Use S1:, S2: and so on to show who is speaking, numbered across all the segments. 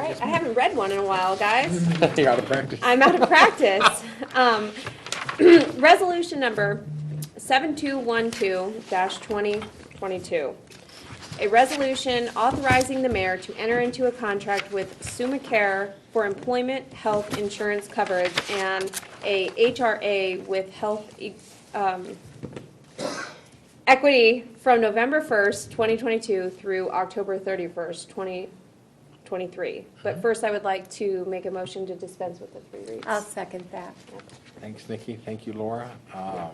S1: I, I haven't read one in a while, guys.
S2: You're out of practice.
S1: I'm out of practice. Um, Resolution number 7212-2022. A resolution authorizing the mayor to enter into a contract with Sumacare for employment, health insurance coverage, and a HRA with health e- um, equity from November 1st, 2022 through October 31st, 2023.
S2: Hmm.
S1: But first, I would like to make a motion to dispense with the three reads.
S3: I'll second that.
S2: Thanks, Nikki. Thank you, Laura. Um,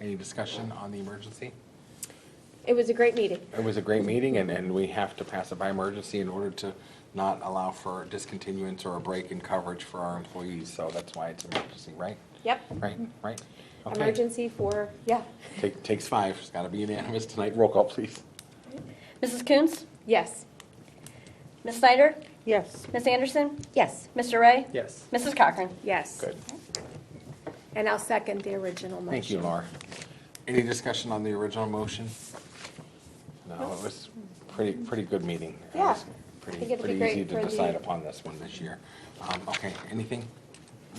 S2: Any discussion on the emergency?
S1: It was a great meeting.
S2: It was a great meeting, and, and we have to pass it by emergency in order to not allow for discontinuance or a break in coverage for our employees, so that's why it's emergency, right?
S1: Yep.
S2: Right, right?
S1: Mm.
S2: Okay.
S1: Emergency for, yeah.
S2: Take- Takes five. It's got to be unanimous tonight. Roll call, please.
S3: Mrs. Coons?
S1: Yes.
S3: Ms. Snyder?
S4: Yes.
S3: Ms. Anderson?
S4: Yes.
S3: Mr. Ray?
S2: Yes.
S3: Mrs. Cochran?
S1: Yes.
S2: Good.
S3: And I'll second the original motion.
S2: Thank you, Laura. Any discussion on the original motion? No, it was pretty, pretty good meeting. It
S1: Yeah.
S2: was
S1: I
S2: Pretty,
S1: think it'd be
S2: pretty
S1: great
S2: easy to
S1: for the-
S2: decide upon this one this year. Um, Okay, anything?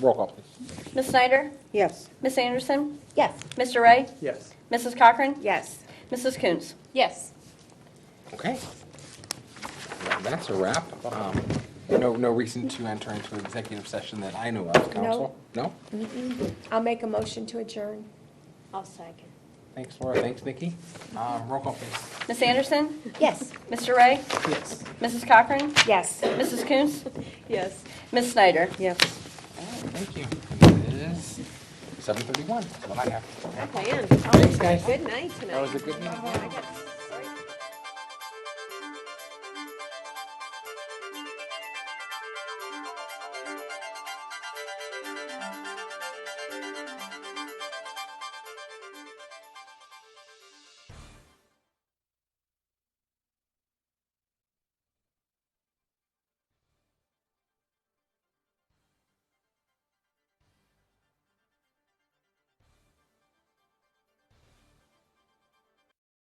S2: Roll call, please.
S3: Ms. Snyder?
S4: Yes.
S3: Ms. Anderson?
S4: Yes.
S3: Mr. Ray?
S2: Yes.
S3: Mrs. Cochran?
S4: Yes.
S3: Mrs. Coons?
S1: Yes.
S2: Okay. Well, That's a wrap. Um, No, no reason to enter into executive session that I know of, council? No?
S3: I'll make a motion to adjourn.
S1: I'll second.
S2: Thanks, Laura. Thanks, Nikki. Um, Roll call, please.
S3: Ms. Anderson?
S4: Yes.
S3: Mr. Ray?
S2: Yes.
S3: Mrs. Cochran?
S4: Yes.
S3: Mrs. Coons?
S1: Yes.
S3: Ms. Snyder?
S4: Yes.
S2: Thank you. And It is 7:31. That's what I have.
S1: I plan.
S2: Thanks, guys.
S1: oh, Good night tonight.
S2: That was a good night.
S1: I got-